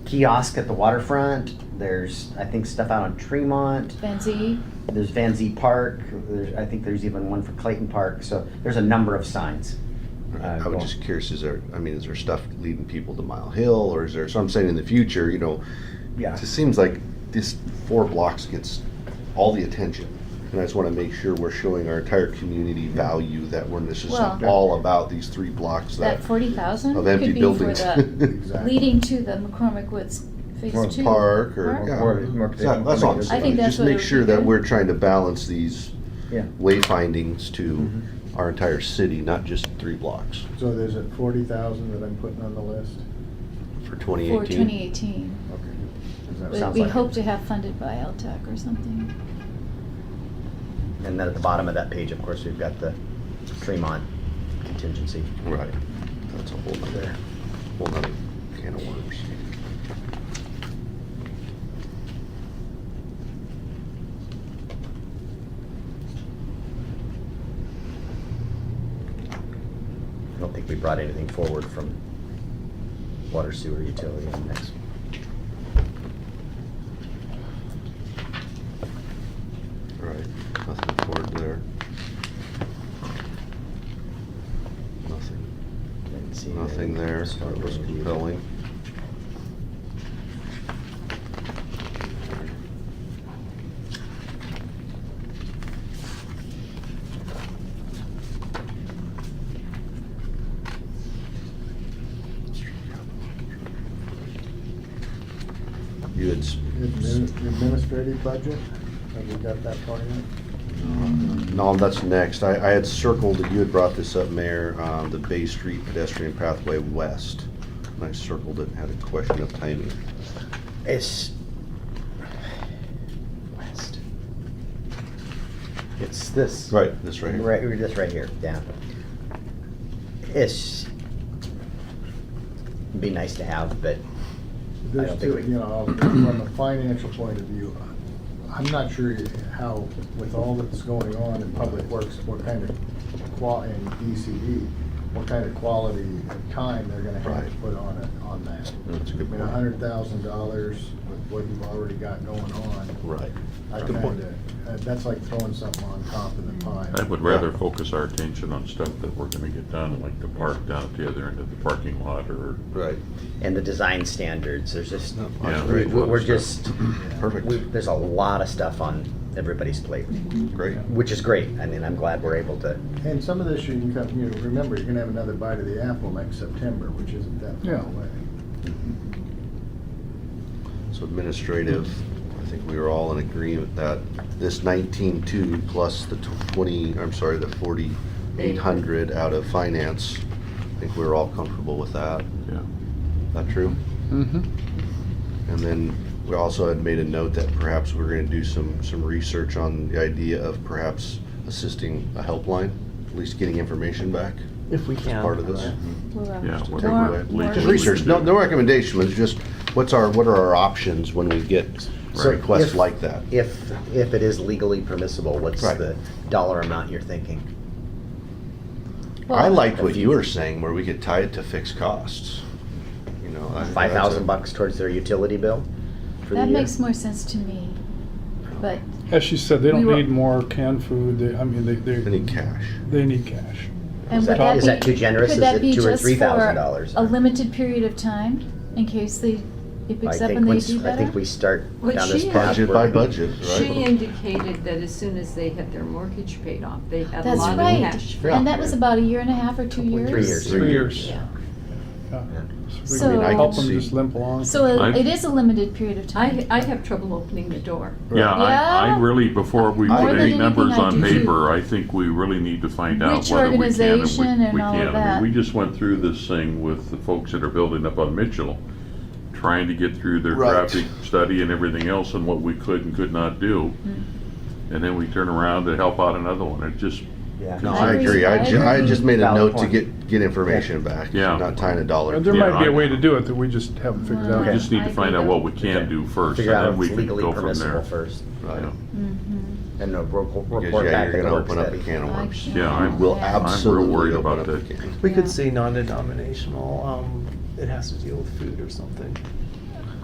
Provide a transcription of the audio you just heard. kiosk at the waterfront. There's, I think, stuff out on Tremont. Benzie, There's Van Zee Park. There's, I think there's even one for Clayton Park. So there's a number of signs. Uh, I go was on. just curious, is there, I mean, is there stuff leading people to Mile Hill or is there, so I'm saying in the future, you know, Yeah. it just seems like this four blocks gets all the attention. And I just want to make sure we're showing our entire community value that we're, this is Well- all about these three blocks that, that forty thousand of could be empty for buildings. the, Exactly. leading to the McCormick Woods Or Phase Two. Park or, Park. yeah. Or- or- So That's all. I'm I think saying. that's Just what it make would sure be that good. we're trying to balance these Yeah. Mm-hmm. wayfindings to our entire city, not just three blocks So there's a forty thousand that I'm putting on the list? for For 2018. twenty eighteen. Okay. Is that- Sounds We like it. hope to have funded by LTAC or something. And then at the bottom of that page, of course, we've got the Tremont contingency. Right. That's a whole nother, whole nother can of worms. I don't think we brought anything forward from water sewer utility on this. All Right. Nothing forward there. Nothing. Didn't see Nothing there that was Stormwater. compelling. You had, s- Admin- Administrative budget, have we got that part in? no, that's next. I, I had circled, you had brought this up, Mayor, um, the Bay Street pedestrian pathway west. And I circled it and had a question of timing. It's west. It's this. Right. This right here. Right, or this right here, yeah. It's, be nice to have, but I There's don't think two, we- you know, from a financial point of view, I'm not sure how, with all that's going on in public works, what kind of qua, and DCD, E, what kind of quality of time they're gonna have to Right. put on it, on that. That's a I good mean, point. a hundred thousand dollars with what you've already got going on, Right. I Good point. kinda, uh, that's like throwing something on top of the pile. I would rather focus our attention on stuff that we're gonna get done, like the park down at the other end of the parking lot or Right. and the design standards, there's just, No, Yeah. that's we- great. we're just, Perfect. we- there's a lot of stuff on everybody's plate, Great. which is great. I mean, I'm glad we're able to, And some of this you can come, you know, remember, you're gonna have another bite of the apple next September, which isn't that Yeah. far away. So administrative, I think we were all in agreement that this nineteen-two plus the tw- twenty, I'm sorry, the forty-eight hundred out of finance, I think we were all comfortable with that. Yeah. Not true? Mm-hmm. And then we also had made a note that perhaps we're gonna do some, some research on the idea of perhaps assisting a helpline, at least getting information back if we as can. part of this. We'll, uh, Yeah, to what take we- away. we- Just we- research, no, no recommendation, but just what's our, what are our options when we get So requests if- like that? If, if it is legally permissible, what's Right. the dollar amount you're thinking? I well, liked what you were saying, where we could tie it to fixed costs. You know, I- that's Five thousand a- bucks towards their utility bill for the uh, That year? makes more sense to me, but As she said, they We don't were- need more canned food, they, I mean, they, I they, need cash. they need cash. And Is that- would that is that be- too generous? could Is that it be two or just three thousand for dollars? A limited period of time, in case they, I it picks up think and they once- do I think we better? start What down this she path. asked- Budget we're- by budget, She right? indicated that as soon as they had their mortgage paid off, they had a That's lot of right, cash. and that was about a year and a half or two years? Three years. Three years. Yeah. Yeah. So we So- I mean, I Help could them see- just limp along. So uh, I'm- it is a limited period of I, time. I have trouble opening the door. Yeah, I, I Yeah. really, before we More put than any anything, numbers I on do too. paper, I think we really need to find out Which whether we can and we, we organization and can't. all of I that. mean, we just went through this thing with the folks that are building up on Mitchell, trying to get through their Right. traffic study and everything else and what we could and could not do. Mm. And then we turn around to help out another one. It just, Yeah. No, I I agree. agree. I, ju- I just made a Valid note to point. get, get information back, Yeah. not tying a dollar. There to it. Yeah, might be I- a way to do it that we just haven't figured Well, we out. just need I to find agree out what we with- can Okay. do first and Figure out then if we it's can legally go from permissible there. first, Right. Yeah. Mm-hmm. and a report Because, report yeah, back you're that gonna works open up a that- can of worms. Yeah, I'm- We'll Yeah. I'm real absolutely. worried open about up that. a can. We Yeah. could say non-denominational, um, it has to deal with food or something.